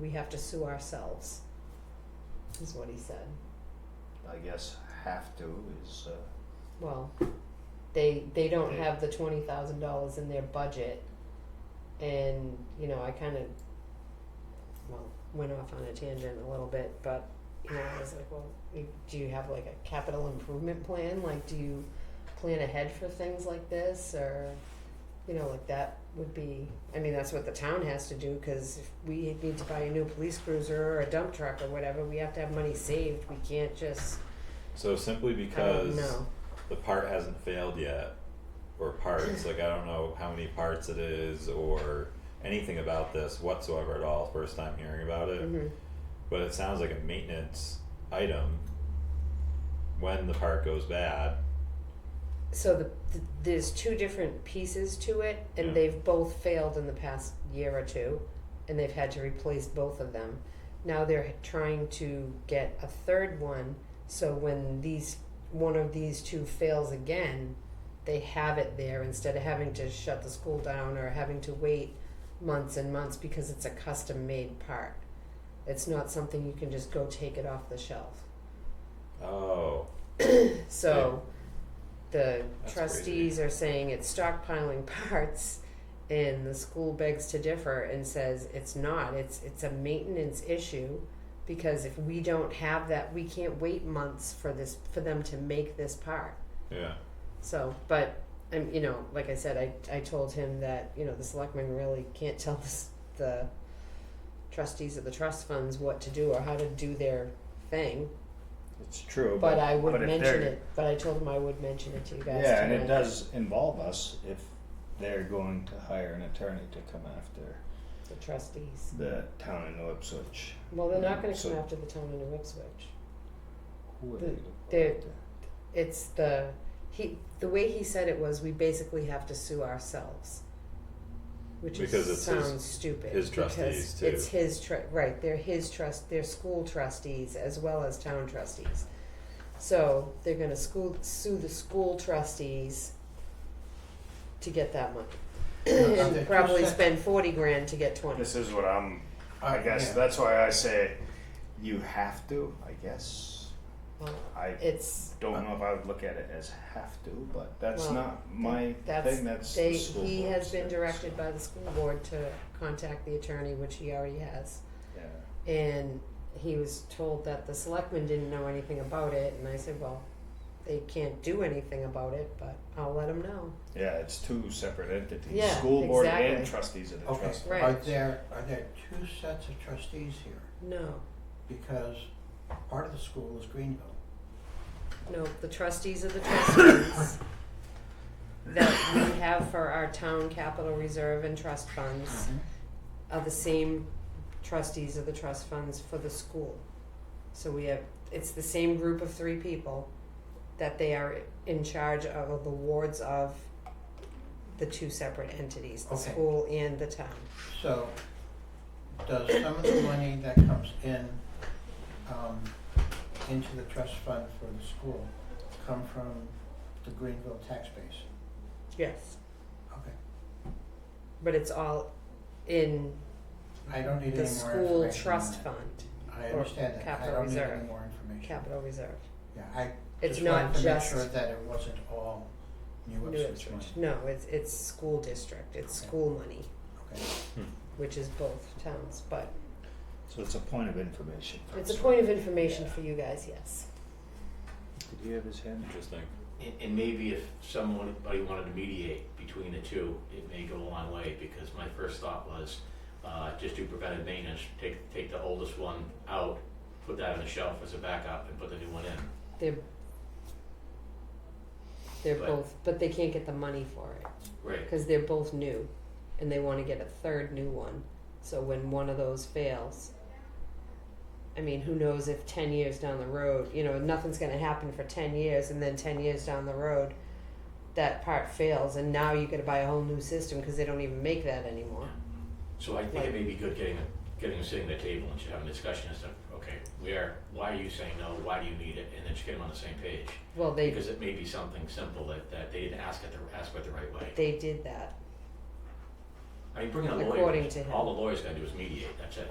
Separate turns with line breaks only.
we have to sue ourselves, is what he said.
I guess have to is, uh,
Well, they they don't
They-
have the twenty thousand dollars in their budget, and you know I kind of well went off on a tangent a little bit, but you know I was like, well, you- do you have like a capital improvement plan? Like, do you plan ahead for things like this, or you know like that would be? I mean, that's what the town has to do because if we need to buy a new police cruiser or a dump truck or whatever, we have to have money saved. We can't just
So simply
I don't
because
know.
the part hasn't failed yet, or parts, like I don't know how many parts it is or anything about this whatsoever at all, first time hearing about it.
Mhm.
But it sounds like a maintenance item when the part goes bad.
so the, th there's two different pieces to it and
Yeah.
they've both failed in the past year or two and they've had to replace both of them now they're trying to get a third one so when these one of these two fails again they have it there instead of having to shut the school down or having to wait months and months because it's a custom made part it's not something you can just go take it off the shelf
Oh,
so the
That's
trustees are saying it's stockpiling parts and the school begs to differ and says it's not. It's it's a maintenance issue because if we don't have that we can't wait months for this for them to make this part.
yeah.
So, but I'm, you know, like I said, I, I told him that you know the selectmen really can't tell the, s- the trustees of the trust funds what to do or how to do their thing.
it's true, but.
But I would
but if
mention
they're-
it. But I told him I would mention it to you guys.
Yeah, and it
tonight.
does involve us if they're going to hire an attorney to come after
The trustees.
the town in Ipswich.
Well, they're not going to
So-
come after the town in New Ipswich.
Who are
The-
they?
they're- It's the he. The way he said it was, we basically have to sue ourselves, which
Because
is,
it's his-
sounds stupid.
his
because
trustees, too.
It's his tr right. They're his trust. They're school trustees as well as town trustees. So they're going to school sue the school trustees to get that money. and probably spend forty grand to get twenty.
This is what I'm. I
Uh,
guess
yeah.
that's why I say
You have to, I guess.
Well,
I
it's
don't know if I would look at it as have to, but
That's
Well,
not my
that's-
thing, that's
they
the school
he has
board's
been
thing,
directed
so,
by the school board to contact the attorney, which he already has.
Yeah,
And he was told that the selectmen didn't know anything about it, and I said, well, they can't do anything about it, but I'll let them know.
yeah, it's two separate entities:
Yeah,
school board
exactly.
and trustees of the
Okay,
trust.
Right.
are there, are there two sets of trustees here?
No,
Because part of the school is Greenville.
no, the trustees of the trustees that we have for our town capital reserve and trust funds are the same trustees of the trust funds for the school. So we have, it's the same group of three people that they are in charge of the wards of the two separate entities, the
Okay.
school and the town.
So, does some of the money that comes in, um, into the trust fund for the school come from the Greenville tax base?
Yes.
Okay,
But it's all in
I don't need
the
any more
school
information on
trust
that.
fund,
I understand that, I
capital
don't need
reserve.
any more information.
capital reserve.
Yeah, I
It's
just wanted
not
to make
just
sure that it wasn't all New
New
Ipswich money,
Ipswich. No, it's, it's school district, it's
Okay.
school money,
okay?
which is both towns, but
so it's a point of information for
it's a
us.
point of information
Yeah.
for you guys, yes.
Did he have his hand?
Interesting.
And, and maybe if someone, buddy wanted to mediate between the two, it may go a long way, because my first thought was, uh, just do preventive maintenance, take, take the oldest one out, put that on the shelf as a backup and put the new one in.
They're they're
But-
both, but they can't get the money for it
Right,
because they're both new, and they want to get a third new one. So when one of those fails, I mean, who knows if ten years down the road, you know, nothing's going to happen for ten years, and then ten years down the road, that part fails, and now you got to buy a whole new system because they don't even make that anymore.
so I think it may be good getting, a- getting, them sitting at the table and just having a discussion as to, okay, where, why are you saying no, why do you need it, and then just get them on the same page.
Well, they
Because it may be something simple that, that they didn't ask it, the- ask it the right way.
they did that.
I mean, bringing a
According
lawyer,
to him.
all the lawyer's gotta do is mediate, that's it.